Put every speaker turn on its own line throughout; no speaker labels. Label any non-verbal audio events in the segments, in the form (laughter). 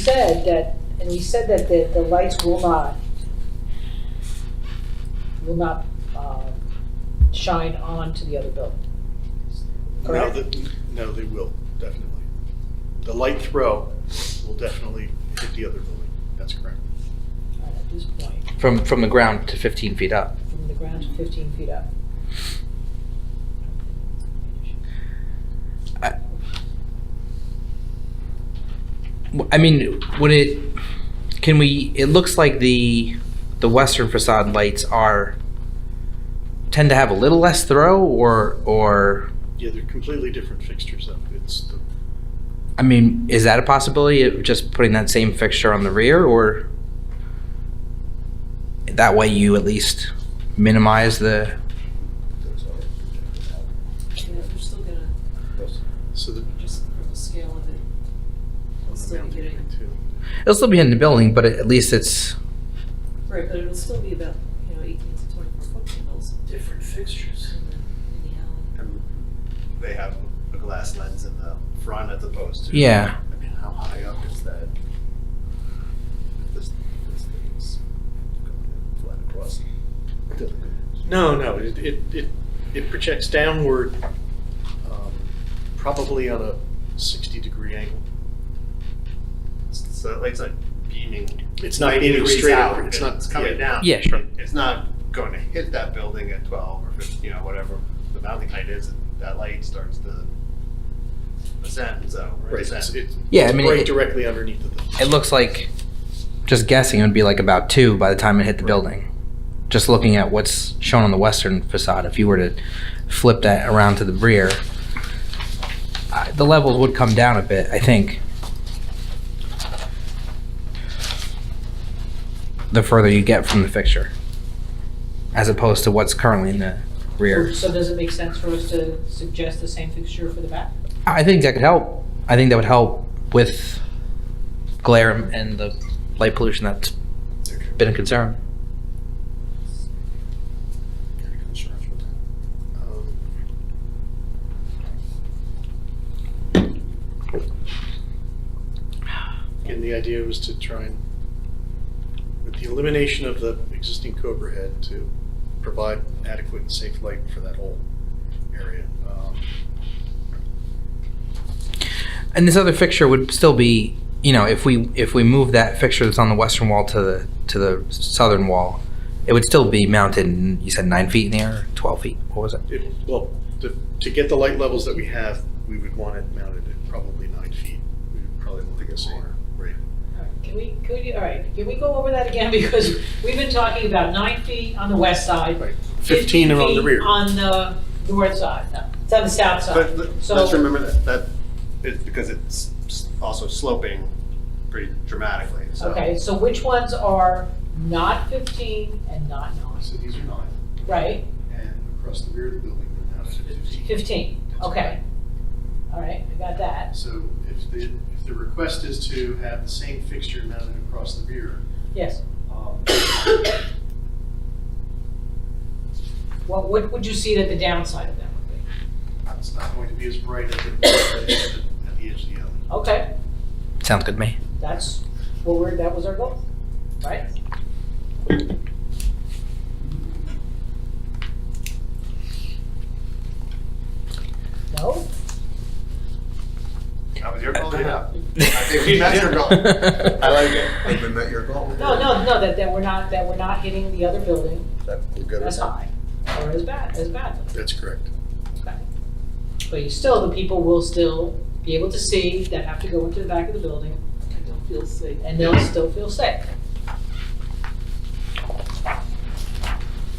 said that, and we said that the, the lights will not, will not, um, shine onto the other building.
No,
Correct?
the- no, they will, definitely. The light throw will definitely hit the other building, that's correct.
At this point,
From, from the ground to 15 feet up.
from the ground to fifteen feet up.
W- I mean, would it, can we, it looks like the, the western facade lights are, tend to have a little less throw or, or,
Yeah, they're completely different fixtures though. It's, the-
I mean, is that a possibility of just putting that same fixture on the rear or? That way you at least minimize the,
That's all projected out.
Yeah, they're still gonna
That's-
so the.
just for the scale of it. It'll still be getting,
Too.
it'll still be in the building, but at least it's,
right, but it'll still be about, you know, eighteen to twenty-four foot candles
different fixtures.
in the, in the alley.
And They have a glass lens in the front as opposed to.
yeah.
I mean, how high up is that? This, this thing's going to flat across.
No, no, it, it, it it projects downward, um, probably on a 60-degree angle.
So that light's not beaming.
It's not
90
beaming
degrees
straight
out,
out. It's not-
It's coming
yeah.
down.
Yeah, sure.
It- It's not going to hit that building at 12 or 15, you know, whatever the mounting height is, that light starts to ascend, so. or
It's,
descend.
it's
Yeah, I mean,
right
it-
directly underneath of the.
It looks like, just guessing, it would be like about two by the time it hit the building. Just looking at what's shown on the western facade, if you were to flip that around to the rear, I- the levels would come down a bit, I think. The further you get from the fixture, as opposed to what's currently in the rear.
So does it make sense for us to suggest the same fixture for the back?
I think that could help. I think that would help with glare and the light pollution that's been a concern.
Any concerns with that?
um, Again, the idea was to try and, with the elimination of the existing Cobra head, to provide adequate and safe light for that whole area. Um,
And this other fixture would still be, you know, if we if we move that fixture that's on the western wall to the to the southern wall, it would still be mounted. You said nine feet in the air, twelve feet. What was it?
It, well, to, to get the light levels that we have, we would want it mounted at probably nine feet. We would probably want to get more, right?
All right, Can we, could you, all right, can we go over that again? (laughs) Because we've been talking about nine feet on the west side.
Right. Fifteen around the
50
rear.
On the north side, no, it's on the south side.
But let-
So-
let's remember that, that, it's because it's s- also sloping pretty dramatically, so.
Okay, so which ones are not 15 and not 9,
So these are nine,
right?
and across the rear of the building, we're now at 15.
15, okay. All right, I got that,
So if the, if the request is to have the same fixture mounted across the rear,
yes.
um,
What, what would you see that the downside of that would be?
it's not going to be as bright at the, at the- at the edge of the alley.
Okay,
Sounds good to me.
that's what we're, that was our goal, right? No?
That was your
Uh-huh.
call, yeah.
I (laughs)
think we met your goal. I like it. I think we met your goal.
No, no, no, that, that we're not, that we're not hitting the other building
That, we're good.
as high or as bad, as badly.
That's correct.
Okay. But you still, the people will still be able to see that have to go into the back of the building
I don't feel safe.
and they'll still feel safe.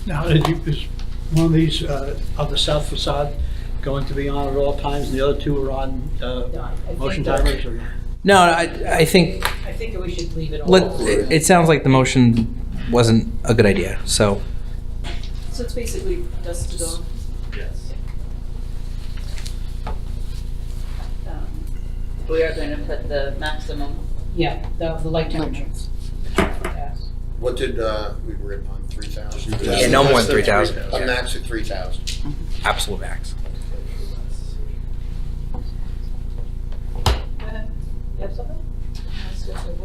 Now, did you- is one of these uh, of the south facade going to be on at all times, and the other two are on uh,
No, I- I think
motion
that-
timers? or-
No, I I think
I think that we should leave it all.
let, it, it sounds like the motion wasn't a good idea. So
So it's basically dusk to dawn.
Yes.
um, we are going to put the maximum
Yeah, the, the light temperature. Yeah.
What did, uh, we were on three thousand?
yeah, no more than three thousand.
A max of three thousand.
Absolute max.
You have something?
Yes.
Just go to the